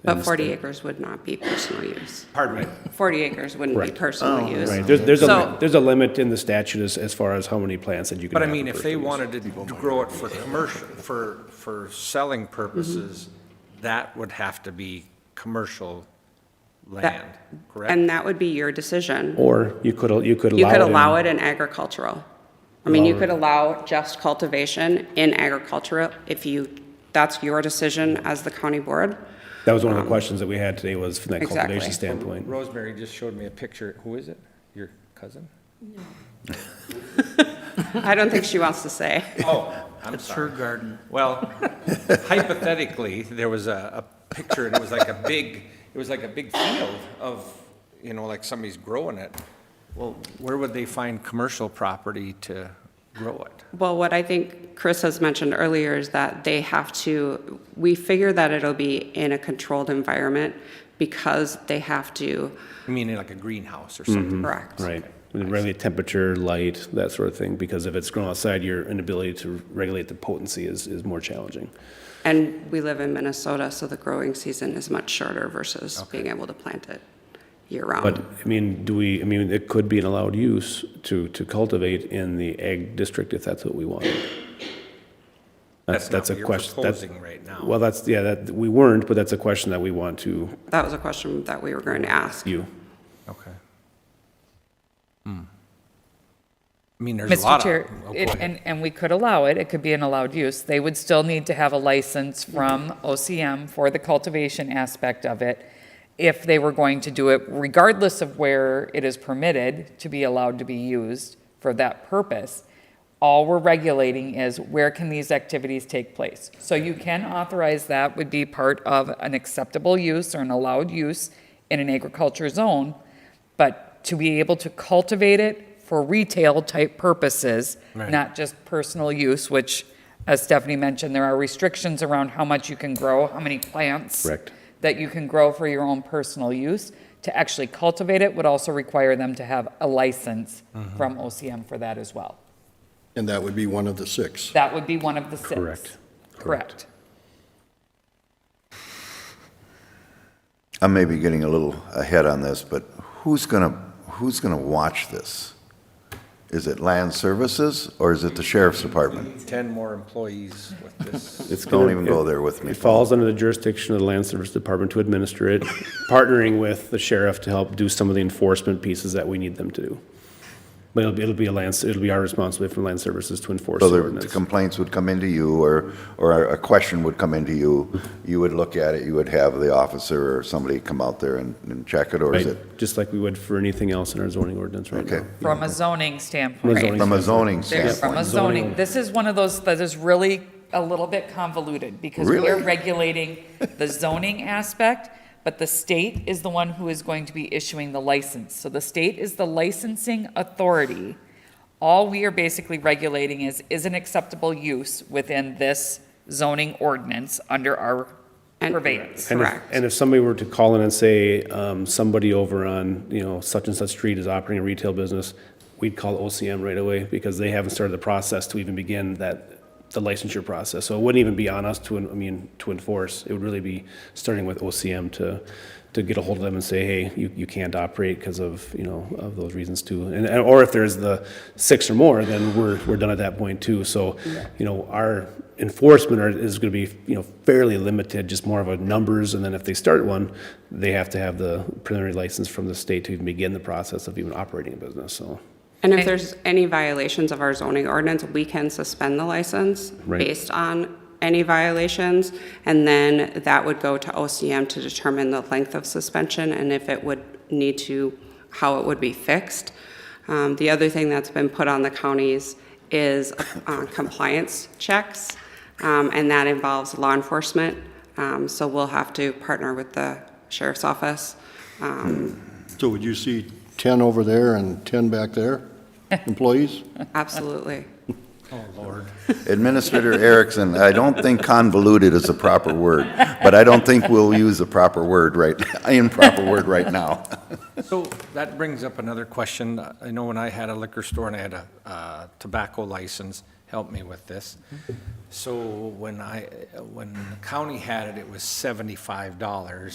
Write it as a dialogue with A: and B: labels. A: But 40 acres would not be personal use.
B: Pardon me.
A: 40 acres wouldn't be
C: Correct.
A: personal use.
C: Oh, Right, there's, there's a,
A: So-
C: there's a limit in the statute as, as far as how many plants that you can
B: But I
C: have.
B: mean,
C: per
B: if they
C: person.
B: wanted to grow it for commercial, for, for selling
A: Mm-hmm.
B: purposes, that would have to be commercial land,
A: That-
B: correct?
A: And that would be your decision.
C: Or you could, you could allow it.
A: You could
C: in-
A: allow it in agricultural. I mean, you could allow just cultivation in agricultural if you, that's your decision as the county board.
C: That was one of
B: Um,
C: the questions that we had today was from that
A: Exactly.
C: cultivation standpoint.
B: Rosemary just showed me a picture. Who is it? Your cousin?
A: I don't think she wants to say.
B: Oh, I'm sorry.
D: Her garden.
B: Well, hypothetically, there was a, a picture, and it was like a big, it was like a big field of, you know, like somebody's growing it. Well, where would they find commercial property to grow it?
A: Well, what I think Chris has mentioned earlier is that they have to, we figure that it'll be in a controlled environment because they have to,
B: I mean, like a greenhouse or something.
A: correct.
C: Mm, Right. And Regulate temperature, light, that sort of thing, because if it's grown outside, your inability to regulate the potency is, is more challenging.
A: And we live in Minnesota, so the growing season is much shorter versus being able to plant it
C: But,
A: year-round.
C: I mean, do we, I mean, it could be an allowed use to, to cultivate in the egg district if that's what we wanted.
B: That's not
C: a
B: what you're
C: question. that's-
B: proposing right now.
C: Well, that's, yeah, that, we weren't, but that's a question that we want to
A: That was a question that we were going to ask.
C: you.
B: Okay. I mean, there's a
E: Mr.
B: lot
E: Chair,
B: of. oh, go
E: it-
B: ahead.
E: and, and we could allow it, it could be an allowed use. They would still need to have a license from OCM for the cultivation aspect of it if they were going to do it, regardless of where it is permitted to be allowed to be used for that purpose. All we're regulating is where can these activities take place? So you can authorize that would be part of an acceptable use or an allowed use in an agriculture zone, but to be able to cultivate it for retail-type purposes, not just personal use, which, as Stephanie mentioned, there are restrictions around how much you can grow, how many plants
C: Correct.
E: that you can grow for your own personal use. To actually cultivate it would also require them to have a license from OCM for that as well.
F: And that would be one of the six.
E: That would be one of the six.
C: Correct.
E: Correct.
G: I may be getting a little ahead on this, but who's going to, who's going to watch this? Is it land services or is it the sheriff's department?
B: Ten more employees with this.
C: It's
G: Don't
C: gonna-
G: even
C: it-
G: go there with me.
C: It falls under the jurisdiction of the Land Service Department to administer it, partnering with the sheriff to help do some of the enforcement pieces that we need them to do. But it'll be, it'll be a land, it'll be our responsibility from Land Services to enforce
G: So
C: the
G: the- the
C: ordinance.
G: complaints would come into you or, or a question would come into you. You would look at it, you would have the officer or somebody come out there and, and check it, or is
C: Right,
G: it?
C: just like we would for anything else in our zoning ordinance right
G: Okay.
C: now.
E: From a zoning standpoint.
C: zoning
G: From a zoning
E: There's
G: standpoint?
E: from a zoning, this is one of those that is really a little bit convoluted because
G: Really?
E: we're regulating the zoning aspect, but the state is the one who is going to be issuing the license. So the state is the licensing authority. All we are basically regulating is, is an acceptable use within this zoning ordinance under our
A: And-
E: purveyance.
C: And if-
A: Correct.
C: And if somebody were to call in and say, um, somebody over on, you know, such and such street is operating a retail business, we'd call OCM right away because they haven't started the process to even begin that, the licensure process. So it wouldn't even be on us to, en- I mean, to enforce. It would really be starting with OCM to, to get a hold of them and say, hey, you, you can't operate because of, you know, of those reasons too. And, and- or if there's the six or more, then we're, we're done at that point too. So, you know, our enforcement are- is going to be, you know, fairly limited, just more of a numbers. And then if they start one, they have to have the preliminary license from the state to even begin the process of even operating a business, so.
A: And if there's any violations of our zoning ordinance, we can suspend the license
C: Right.
A: based on any violations. And then that would go to OCM to determine the length of suspension and if it would need to, how it would be fixed. Um, The other thing that's been put on the counties is uh, compliance checks, um, and that involves law enforcement. Um, So we'll have to partner with the sheriff's office um,
F: So would you see 10 over there and 10 back there, employees?
A: Absolutely.
G: Administrator Erickson, I don't think convoluted is a proper word, but I don't think we'll use a proper word right, improper word right now.
B: So that brings up another question. I know when I had a liquor store and I had a uh, tobacco license, help me with this. So when I, when the county had it, it was seventy-five dollars.